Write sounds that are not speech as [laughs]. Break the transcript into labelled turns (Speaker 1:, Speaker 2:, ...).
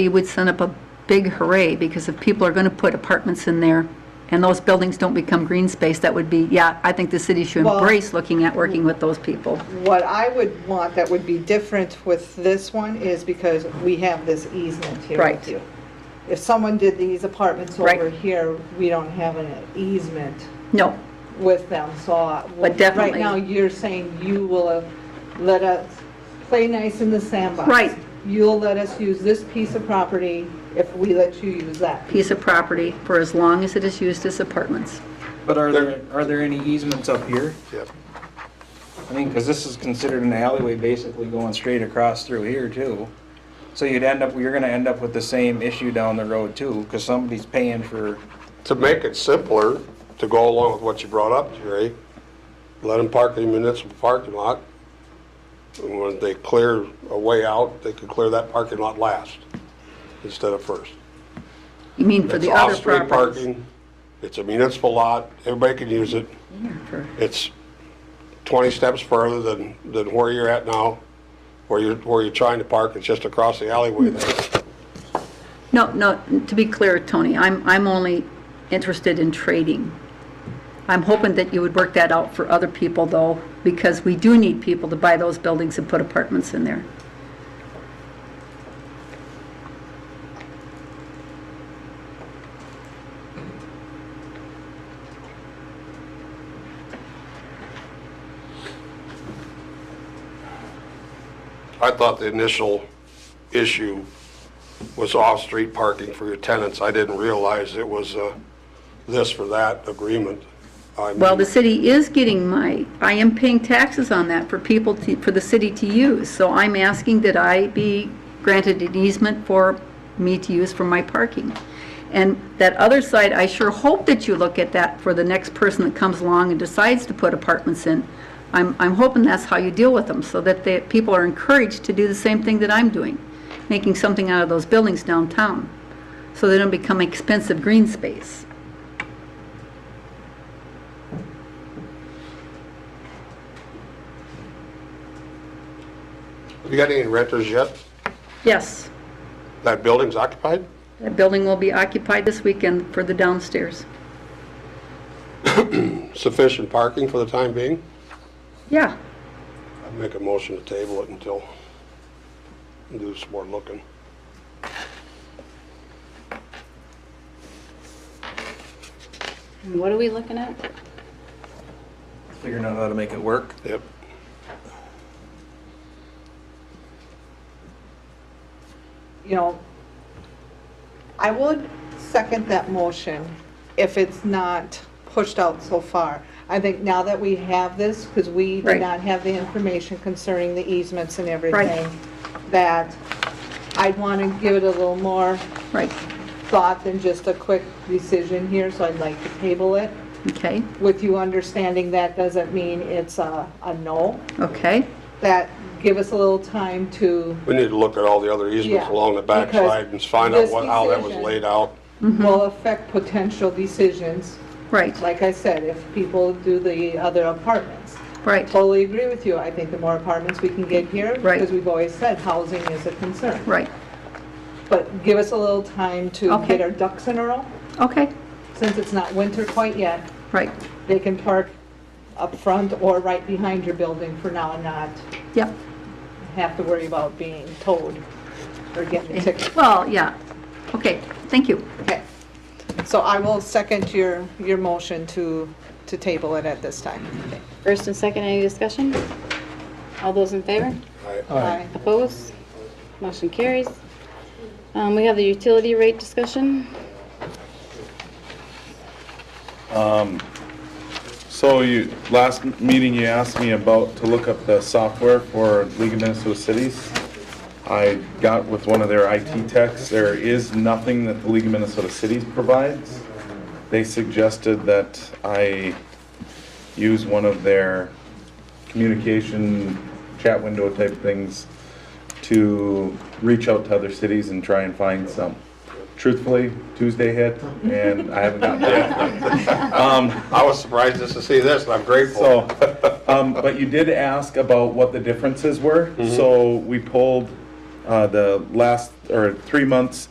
Speaker 1: you would send up a big hooray, because if people are going to put apartments in there and those buildings don't become green space, that would be, yeah, I think the city should
Speaker 2: Well-
Speaker 1: embrace looking at working with those people.
Speaker 2: What I would want that would be different with this one is because we have this easement here
Speaker 1: Right.
Speaker 2: with you. If someone did these apartments
Speaker 1: Right.
Speaker 2: over here, we don't have an easement
Speaker 1: No,
Speaker 2: with them, so. I-
Speaker 1: But definitely-
Speaker 2: Right now, you're saying you will uh, let us play nice in the sandbox.
Speaker 1: Right.
Speaker 2: You'll let us use this piece of property if we let you use that.
Speaker 1: piece of property for as long as it is used as apartments.
Speaker 3: But are there, are there any easements up here?
Speaker 4: Yep.
Speaker 3: I mean, because this is considered an alleyway basically going straight across through here too. So you'd end up, you're gonna end up with the same issue down the road too, because somebody's paying for,
Speaker 4: To make it simpler, to go along with what you brought up, Jerry, let them park in the municipal parking lot. And when they clear a way out, they could clear that parking lot last instead of first.
Speaker 1: You mean for
Speaker 4: It's
Speaker 1: the other
Speaker 4: off-street
Speaker 1: properties?
Speaker 4: parking. It's a municipal lot. Everybody can use it.
Speaker 1: For-
Speaker 4: It's 20 steps further than, than where you're at now, where you're, where you're trying to park. It's just across the alleyway there.
Speaker 1: No, no, to be clear, Tony, I'm, I'm only interested in trading. I'm hoping that you would work that out for other people, though, because we do need people to buy those buildings and put apartments in there.
Speaker 4: I thought the initial issue was off-street parking for your tenants. I didn't realize it was a this for that agreement. Um, I
Speaker 1: Well, the
Speaker 4: mean,
Speaker 1: city is getting my, I am paying taxes on that for people to, for the city to use. So I'm asking that I be granted an easement for me to use for my parking. And that other side, I sure hope that you look at that for the next person that comes along and decides to put apartments in. I'm, I'm hoping that's how you deal with them, so that the, people are encouraged to do the same thing that I'm doing, making something out of those buildings downtown, so they don't become expensive green space.
Speaker 4: You got any renters yet?
Speaker 1: Yes?
Speaker 4: That building's occupied?
Speaker 1: That building will be occupied this weekend for the downstairs.
Speaker 4: Sufficient parking for the time being?
Speaker 1: Yeah,
Speaker 4: I'd make a motion to table it until, do some more looking.
Speaker 5: What are we looking at?
Speaker 3: figuring out how to make it work.
Speaker 4: Yep.
Speaker 2: you know, I would second that motion if it's not pushed out so far. I think now that we have this, because we
Speaker 1: Right.
Speaker 2: did not have the information concerning the easements and
Speaker 1: Right.
Speaker 2: everything, that I'd want to give it a little more
Speaker 1: right,
Speaker 2: thought than just a quick decision here, so I'd like to table it,
Speaker 1: okay,
Speaker 2: with you understanding that doesn't mean it's a, a no,
Speaker 1: okay,
Speaker 2: that give us a little time to
Speaker 4: We need to look at all the other easements
Speaker 2: Yeah,
Speaker 4: along the backside and
Speaker 2: because
Speaker 4: find out
Speaker 2: this
Speaker 4: what, how that was
Speaker 2: decision-
Speaker 4: laid out.
Speaker 1: Mm-hmm.
Speaker 2: will affect potential decisions.
Speaker 1: right,
Speaker 2: Like I said, if people do the other apartments.
Speaker 1: right,
Speaker 2: Totally agree with you. I think the more apartments we can get here.
Speaker 1: Right.
Speaker 2: Because we've always said housing is a concern.
Speaker 1: right,
Speaker 2: But give us a little time to
Speaker 1: Okay.
Speaker 2: get our ducks in a row.
Speaker 1: okay,
Speaker 2: Since it's not winter quite yet,
Speaker 1: right,
Speaker 2: they can park up front or right behind your building for now and not
Speaker 1: yep.
Speaker 2: have to worry about being towed or getting a ticket.
Speaker 1: Well, yeah, okay, thank you.
Speaker 2: Okay. So I will second your, your motion to, to table it at this time.
Speaker 5: First and second, any discussion? All those in favor?
Speaker 2: Aye.
Speaker 5: Opposed? Motion carries. Um, We have the utility rate discussion.
Speaker 6: So you, last meeting you asked me about to look up the software for League of Minnesota Cities. I got with one of their IT techs, there is nothing that the League of Minnesota Cities provides. They suggested that I use one of their communication chat window type things to reach out to other cities and try and find some. Truthfully, Tuesday hit and I haven't gotten it. Um,
Speaker 4: I was surprised just to see this, and I'm grateful.
Speaker 6: so, [laughs] um, but you did ask about what the differences were, so we pulled, uh, the last or three months